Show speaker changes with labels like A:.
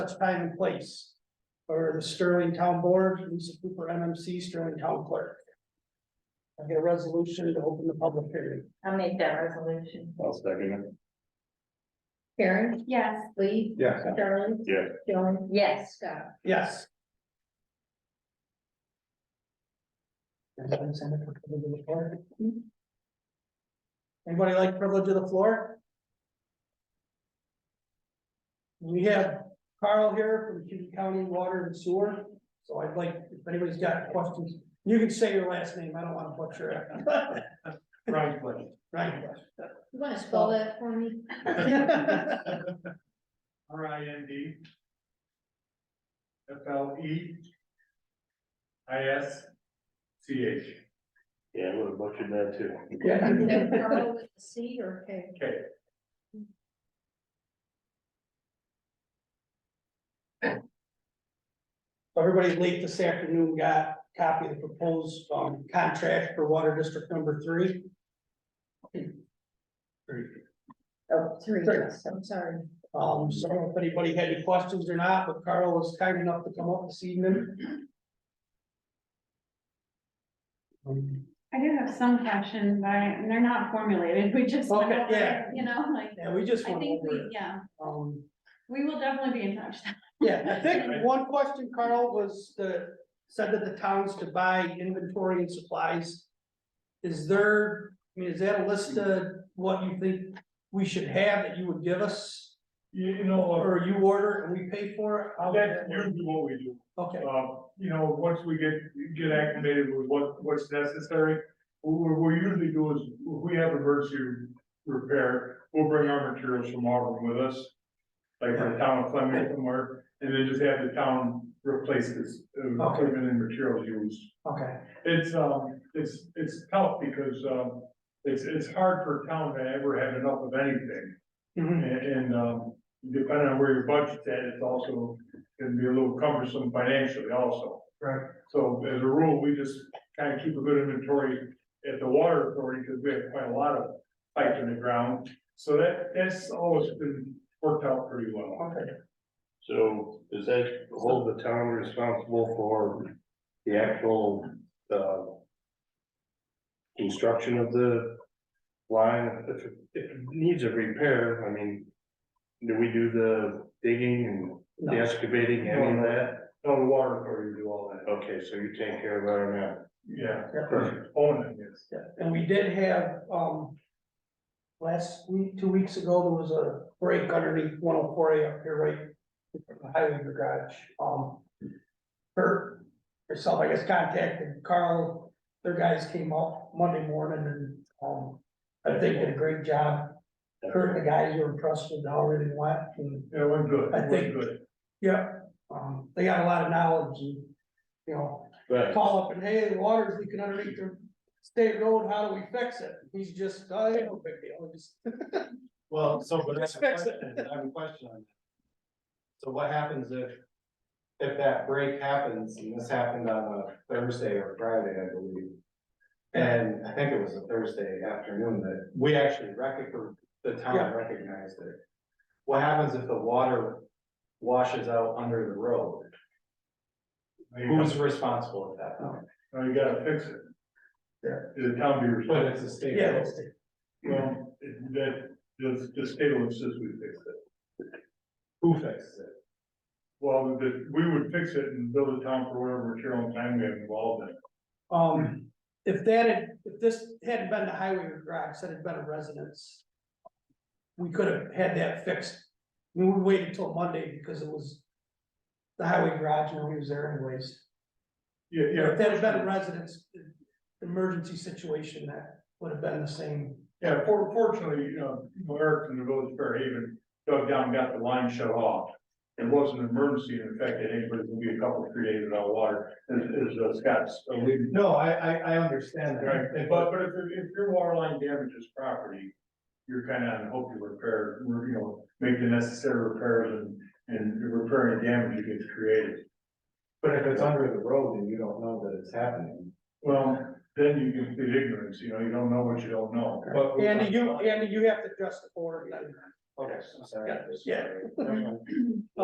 A: such time and place. For the Sterling Town Board, Lisa Cooper, MMC, Sterling Town Clerk. I get a resolution to open the public hearing.
B: I'll make that resolution.
C: I'll second
D: Karen?
B: Yes.
D: Lee?
C: Yeah.
D: Charlie?
C: it. Yeah,
D: Joan?
B: Yes.
D: Scott?
A: Yes. Anybody like privilege of the floor? We have Carl here from Cuba County Water and Sewer, so I'd like, if anybody's got questions, you can say your last name, I don't want to butcher it.
E: Right, but
A: Right.
D: You wanna spell that for me?
E: R I N D. F L E. I S. C H.
C: yeah, I would have butchered that too.
D: Is
A: Yeah.
D: that Carl with a C or K?
E: Okay,
A: Everybody late this afternoon got a copy of the proposed um contract for water district number three.
D: Oh, three,
A: Three.
D: yes, I'm sorry.
A: Um, so I don't know if anybody had any questions or not, but Carl was kind enough to come up this evening. Um,
F: I do have some questions, but I- they're not formulated, we just. went
A: Okay,
F: over
A: yeah.
F: it, You know, like,
A: Yeah, we just
F: I
A: went
F: think
A: over
F: we,
A: it.
F: yeah,
A: Um,
F: we will definitely be in touch.
A: yeah, I think one question, Carl, was the, said that the towns could buy inventory and supplies. Is there, I mean, is that a list of what you think we should have that you would give us?
E: you, you know,
A: Or you order and we pay for it? How
E: uh,
A: would uh, that
E: that's
A: work?
E: usually what we do.
A: Okay,
E: Um, you know, once we get, get acclimated with what, what's necessary, what we usually do is, if we have emergency repair, we'll bring our materials from Auburn with us. Like from town of Fleming somewhere, and then just have the town replace this, uh,
A: Okay.
E: equipment and materials used.
A: okay,
E: It's, um, it's, it's tough because, um, it's, it's hard for a town to ever have enough of anything.
A: Mhm.
E: And, and, um, depending on where your budget's at, it's also, can be a little cumbersome financially also.
A: Right.
E: So as a rule, we just kind of keep a good inventory at the water authority because we have quite a lot of pipes in the ground. So that, that's always been worked out pretty well.
A: okay.
C: So does that hold the town responsible for the actual, uh, construction of the line? If, it- if it needs a repair, I mean, do we do the digging and
A: Mm-hmm.
C: the excavating, any of that?
E: No, the water authority do all that.
C: Okay, so you take care of that or not?
E: Yeah,
A: Yeah.
E: own it, yes.
A: Yeah, And we did have, um, last week, two weeks ago, there was a break underneath one oh four A up here, right? in front of the Highway garage, um, her, herself, I guess, contacted Carl, their guys came up Monday morning and, um, I think did a great job. Kurt and the guys were impressed with how it really went and
E: Yeah, we're good.
A: I think-
E: We're good.
A: Yeah, um, they got a lot of knowledge and, you know,
C: Right,
A: call up and, hey, the water's leaking underneath the state road, how do we fix it? He's just, oh, yeah, no big deal, just.
G: Well, so, but I have a
A: Fix it.
G: question, I have a question on that. So what happens if, if that break happens, and this happened on a Thursday or Friday, I believe? And I think it was a Thursday afternoon that we actually recog- or the town
A: Yeah.
G: recognized it. What happens if the water washes out under the road?
E: There you go.
G: Who's responsible at that point?
E: Now you gotta fix it.
A: Yeah.
E: The town be
G: But
E: responsible.
G: it's a state
A: Yeah,
G: road.
A: it's-
E: Well, it- that, the, the state will insist we fix it.
G: Who fixes it?
E: Well, the, we would fix it and build a town for whatever material and time we have involved in. it.
A: um, if that had, if this hadn't been the highway or garage, that had been a residence. We could have had that fixed, we would wait until Monday because it was the highway garage and we was there anyways.
E: Yeah,
A: If
E: yeah.
A: that had been a residence, emergency situation, that would have been the same.
E: Yeah, for, fortunately, uh, you know, Eric from the village of Fairhaven dug down, and got the line shut off. It wasn't an emergency, in fact, it ain't, but it's gonna be a couple, three days without water, as, as uh, Scott's alluded
G: No, I, I, I understand
E: Right,
G: that, but
E: but, but if, if your water line damages property, you're kind of on hope you repair, you know, make the necessary repairs and, and repairing the damage that gets created.
G: But if it's under the road and you don't know that it's happening,
E: Well, then you can plead ignorance, you know, you don't know what you don't know.
G: but.
A: Andy, you, Andy, you have to dress the board, then.
G: Okay, I'm sorry.
A: Yeah.
G: Okay.